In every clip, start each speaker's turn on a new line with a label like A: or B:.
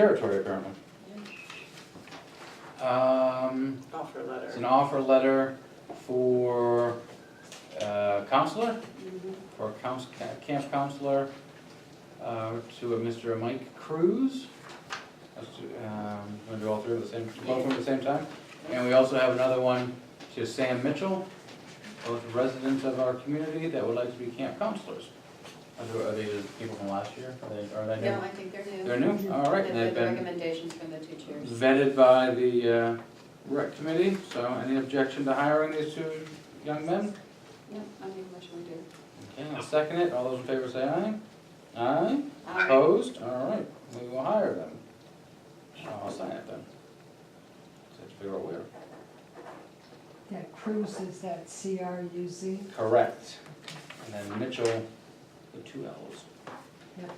A: territory apparently. Um,
B: offer letter.
A: it's an offer letter for, uh, counselor, for couns, ca- camp counselor, uh, to a Mr. Mike Cruz. Let's do, um, wanna do all three at the same, both of them at the same time? And we also have another one to Sam Mitchell, both residents of our community that would like to be camp counselors. Are they- Are these people from last year? Are they, are they new?
C: No, I think they're new.
A: They're new? All right,
C: They've
A: and they've
C: got
A: been
C: recommendations from the two chairs.
A: vetted by the uh, rec committee, so any objection to hiring these two young men?
C: Yeah, I make a motion we do.
A: Okay, I'll second it, all those in favor say aye. Aye,
C: Uh,
A: opposed, all right, we will hire them. So I'll sign it then. Just have to figure out where.
D: That Cruz is that C R U Z.
A: Correct. And then Mitchell, the two L's.
D: Yep.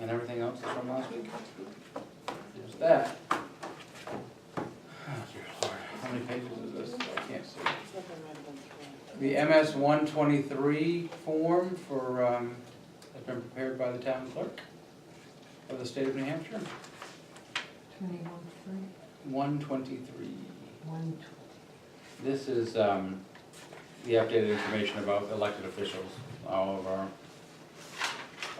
A: And everything else is from last week? There's that. Oh, dear Lord, how many pages is this? I can't see. The MS one twenty-three form for, um, has been prepared by the town clerk of the state of New Hampshire,
D: Twenty-one three,
A: one twenty-three.
D: one
A: This is um, the updated information about elected officials, all of our,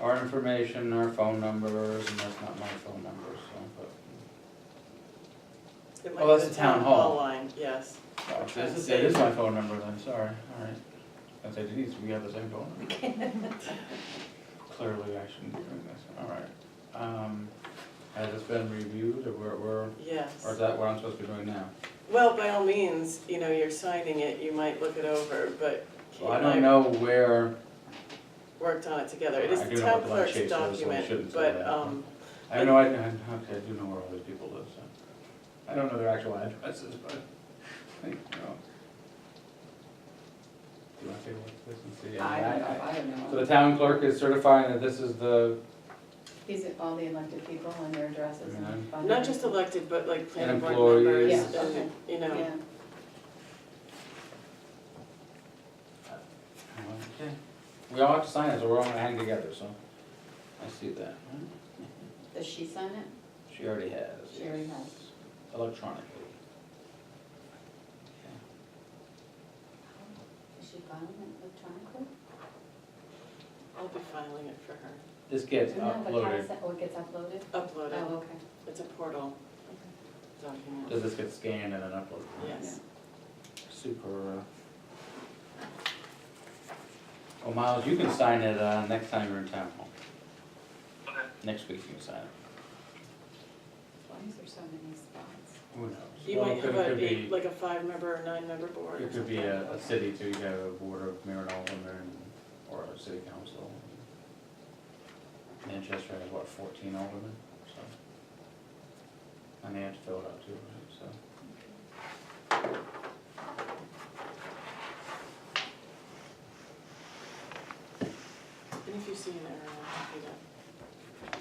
A: our information, our phone numbers, and that's not my phone number, so,
B: It
A: Oh,
B: might be
A: that's
B: the
A: the town hall.
B: line, yes.
A: but. That uh, is that is my phone number then, sorry, all right. I said, Denise, we have the same phone number. Clearly, I shouldn't be doing this, all right. Um, Has this been reviewed, or we're- we're,
B: Yes.
A: or is that what I'm supposed to be doing now?
B: Well, by all means, you know, you're signing it, you might look it over, but Kate
A: Well, I don't
B: and I
A: know where,
B: worked on it together. It is
A: I
B: the
A: do know
B: town
A: what the line
B: clerk's
A: chase is, so we shouldn't
B: document,
A: say
B: but,
A: that.
B: um,
A: I know, I, I- okay, I do know where all these people live, so. I don't know their actual addresses, but, I think, you know. Do you want to take a look at this and see?
C: I don't
A: I-
C: know, I don't
A: So the
C: know.
A: town clerk is certifying that this is the,
C: These are all the elected people and their addresses
A: Mm-hmm.
C: and. phone
B: not just
C: numbers.
B: elected, but like planning board
A: employees.
B: members
C: Yeah,
B: and,
C: okay.
B: you know,
C: Yeah,
A: okay, we all have to sign it, so we're all gonna hang together, so. I see that.
C: does she sign it?
A: She already has.
C: She already
A: yes.
C: has.
A: Electronically.
C: Does she file it electronically?
B: I'll be filing it for her.
A: This gets
C: No, but how is
A: uploaded,
C: that, oh, it gets uploaded?
B: Upload
C: Oh,
B: it.
C: okay.
B: It's a portal document,
A: does this get scanned and then uploaded?
B: yes.
A: Super. uh, Well, Miles, you can sign it uh, next time you're in town hall. Next week you can sign it.
C: Why is there so many spots?
A: Who knows?
B: You
A: Well,
B: might
A: it
B: have
A: could-
B: a,
A: could
B: eight-
A: be-
B: like a five-member or nine-member board or
A: It could be
B: something.
A: a, a city too, you could have a board of mayor and alderman, or a city council. Manchester has what, fourteen aldermen, so. And they have to fill it out too, right, so.
B: And if you see an error, I'll copy that.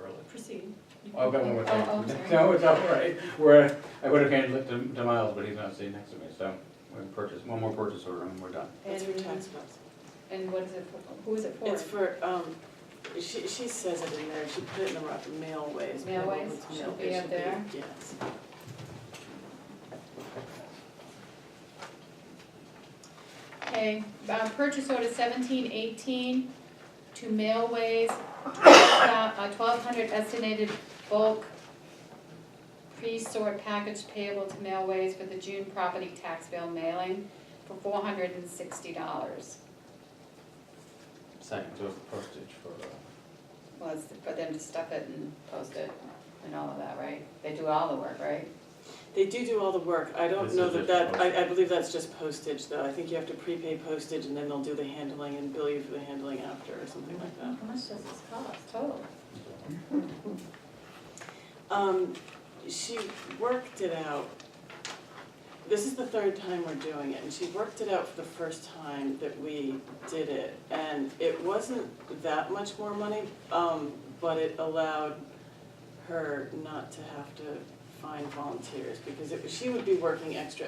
A: Early.
C: Proceed.
A: Oh, I've got one more
C: Oh, oh, I'm
A: thing.
C: sorry.
A: No, it's all right. We're, I would have handed it to to Miles, but he's not sitting next to me, so we can purchase, one more purchase order and we're done.
B: That's your tax
C: And,
B: bills.
C: and what is it for, who is it for?
B: It's for, um, she, she says it in there, she put it in the rough mail ways. but I don't know if it's
C: Mailways?
B: mail
C: Should be
B: ways,
C: up
B: should
C: there.
B: Yes.
C: Okay, uh, purchase order seventeen eighteen to Mailways, uh, twelve hundred estimated bulk pre-sort package payable to Mailways for the June property tax bill mailing for four hundred and sixty dollars.
A: Second, so it's the postage for, uh,
C: Was for them to stuff it and post it and all of that, right? They do all the work, right?
B: They do do all the work, I don't
A: This
B: know
A: is
B: that
A: just
B: that, I, I believe that's just postage though, I think you have to prepay postage and then they'll do the handling and bill you for the handling after or something like that.
C: oh, How much does this cost total?
B: Um, she worked it out. This is the third time we're doing it, and she worked it out for the first time that we did it. And it wasn't that much more money, um, but it allowed her not to have to find volunteers, because it, she would be working extra